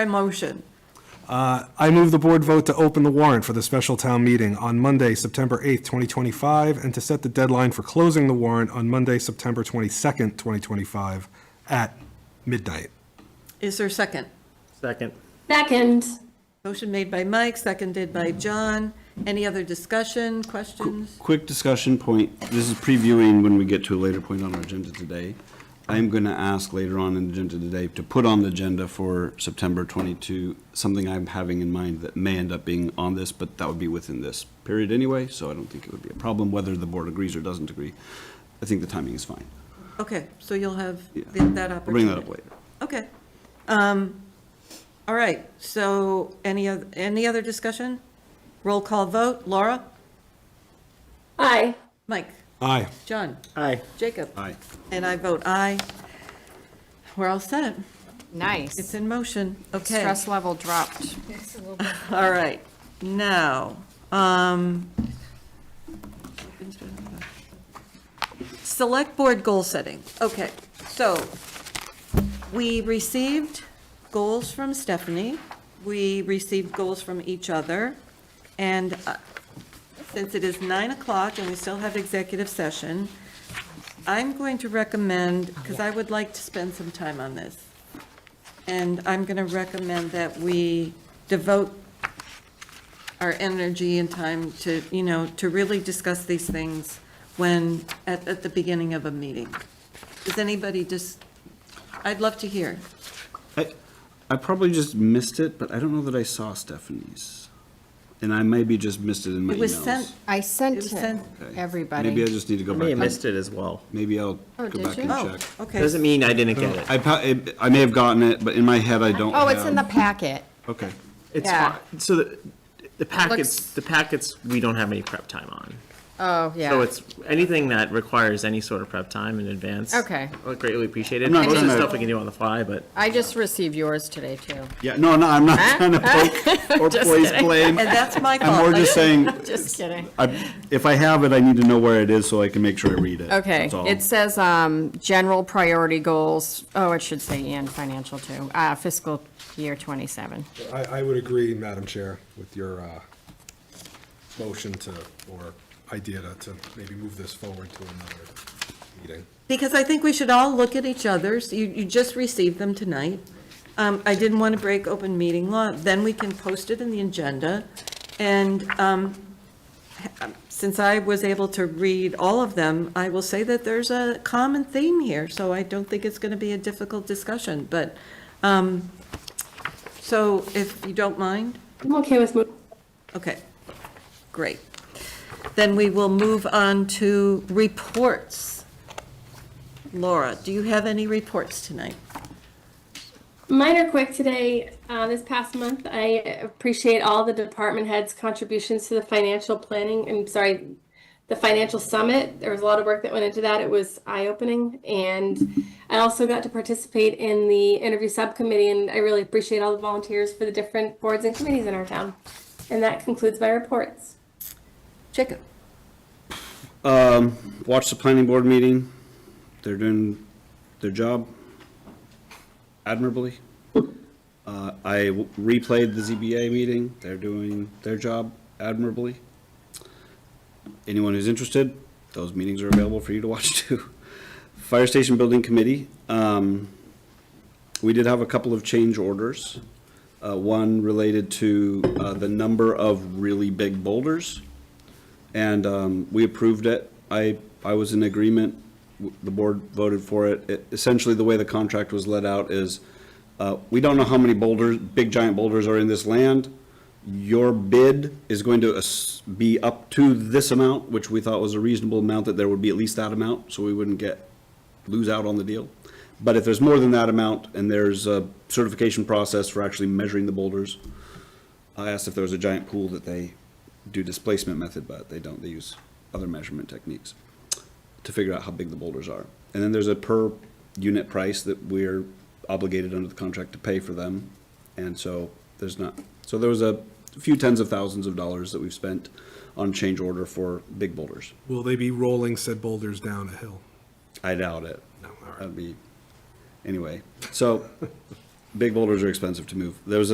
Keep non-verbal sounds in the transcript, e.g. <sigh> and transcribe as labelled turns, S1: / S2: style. S1: motion.
S2: Uh, I move the board vote to open the warrant for the special town meeting on Monday, September 8th, 2025, and to set the deadline for closing the warrant on Monday, September 22nd, 2025, at midnight.
S1: Is there a second?
S3: Second.
S4: Second.
S1: Motion made by Mike, seconded by John. Any other discussion, questions?
S5: Quick discussion point. This is previewing when we get to a later point on our agenda today. I'm going to ask later on in the agenda today to put on the agenda for September 22, something I'm having in mind that may end up being on this, but that would be within this period anyway, so I don't think it would be a problem whether the board agrees or doesn't agree. I think the timing is fine.
S1: Okay, so you'll have
S5: Yeah.
S1: th- that
S5: I'll
S1: opportunity.
S5: bring that up later.
S1: Okay. Um, All right, so any, oth- any other discussion? Roll call vote. Laura?
S4: Aye.
S1: Mike?
S2: Aye.
S1: John?
S3: Aye.
S1: Jacob?
S5: Aye.
S1: And I vote aye. We're all set. It's
S6: Nice.
S1: in motion. Okay.
S6: Stress level dropped.
S1: All right, now, um, select board goal setting. Okay, so we received goals from Stephanie. We received goals from each other. And uh, since it is nine o'clock and we still have executive session, I'm going to recommend, because I would like to spend some time on this. And I'm going to recommend that we devote our energy and time to, you know, to really discuss these things when, at, at the beginning of a meeting. Does anybody just, I'd love to hear.
S5: I, I probably just missed it, but I don't know that I saw Stephanie's. And I maybe just missed it in my
S1: It was
S5: emails.
S1: sent-
S6: I sent
S1: It sent-
S5: Okay. Maybe I
S6: everybody.
S5: just need to go
S3: I
S5: back.
S3: may have
S5: and-
S3: missed it as well.
S5: Maybe I'll
S6: Oh,
S5: go
S6: did
S5: back
S6: you?
S5: and
S1: Oh,
S5: check.
S1: okay.
S3: Doesn't mean I didn't get
S5: I,
S3: it.
S5: pa- I- I may have gotten it, but in my head, I don't
S6: Oh, it's in the
S5: have-
S6: packet.
S5: Okay.
S3: It's
S6: Yeah.
S3: fine. So the, the packets,
S6: Looks-
S3: the packets, we don't have any prep time on.
S6: Oh, yeah.
S3: So it's anything that requires any sort of prep time in advance.
S6: Okay.
S3: I Greatly appreciated.
S5: I'm not
S3: Most of the
S5: trying to-
S3: stuff we can do on the fly, but
S6: I just received yours today,
S5: <laughs>
S6: too.
S5: Yeah, no, no, I'm not trying to poke
S6: <laughs>
S5: or place blame.
S1: And that's my fault.
S5: I'm more just saying,
S6: Just kidding.
S5: I- if I have it, I need to know where it is so I can make sure I read it.
S6: Okay,
S5: That's all.
S6: it says, um, general priority goals, oh, it should say and financial too, uh, fiscal year twenty-seven.
S2: I, I would agree, Madam Chair, with your uh, motion to, or idea to, to maybe move this forward to another meeting.
S1: Because I think we should all look at each other's, you, you just received them tonight. Um, I didn't want to break open meeting law, then we can post it in the agenda. And, um, ha- since I was able to read all of them, I will say that there's a common theme here, so I don't think it's going to be a difficult discussion, but, um, so if you don't mind,
S4: I'm okay with moving.
S1: okay, great. Then we will move on to reports. Laura, do you have any reports tonight?
S4: Mine are quick today. Uh, this past month, I appreciate all the department heads' contributions to the financial planning. I'm sorry, the financial summit. There was a lot of work that went into that. It was eye opening. And I also got to participate in the interview subcommittee, and I really appreciate all the volunteers for the different boards and committees in our town. And that concludes my reports.
S1: Jacob?
S5: Watch the planning board meeting. They're doing their job admirably. Uh, I w- replayed the ZBA meeting. They're doing their job admirably. Anyone who's interested, those meetings are available for you to watch <laughs> too. Fire Station Building Committee, um, we did have a couple of change orders. Uh, one related to, uh, the number of really big boulders. And um, we approved it. I, I was in agreement. W- The board voted for it. It- Essentially, the way the contract was let out is, uh, we don't know how many boulders, big giant boulders are in this land. Your bid is going to as- be up to this amount, which we thought was a reasonable amount, that there would be at least that amount, so we wouldn't get, lose out on the deal. But if there's more than that amount, and there's a certification process for actually measuring the boulders, I asked if there was a giant pool that they do displacement method, but they don't. They use other measurement techniques to figure out how big the boulders are. And then there's a per unit price that we're obligated under the contract to pay for them. And so there's not, so there was a few tens of thousands of dollars that we've spent on change order for big boulders.
S2: Will they be rolling said boulders down a hill?
S5: I doubt it.
S2: No, all right.
S5: That'd be, anyway, so big boulders are expensive to move. There was a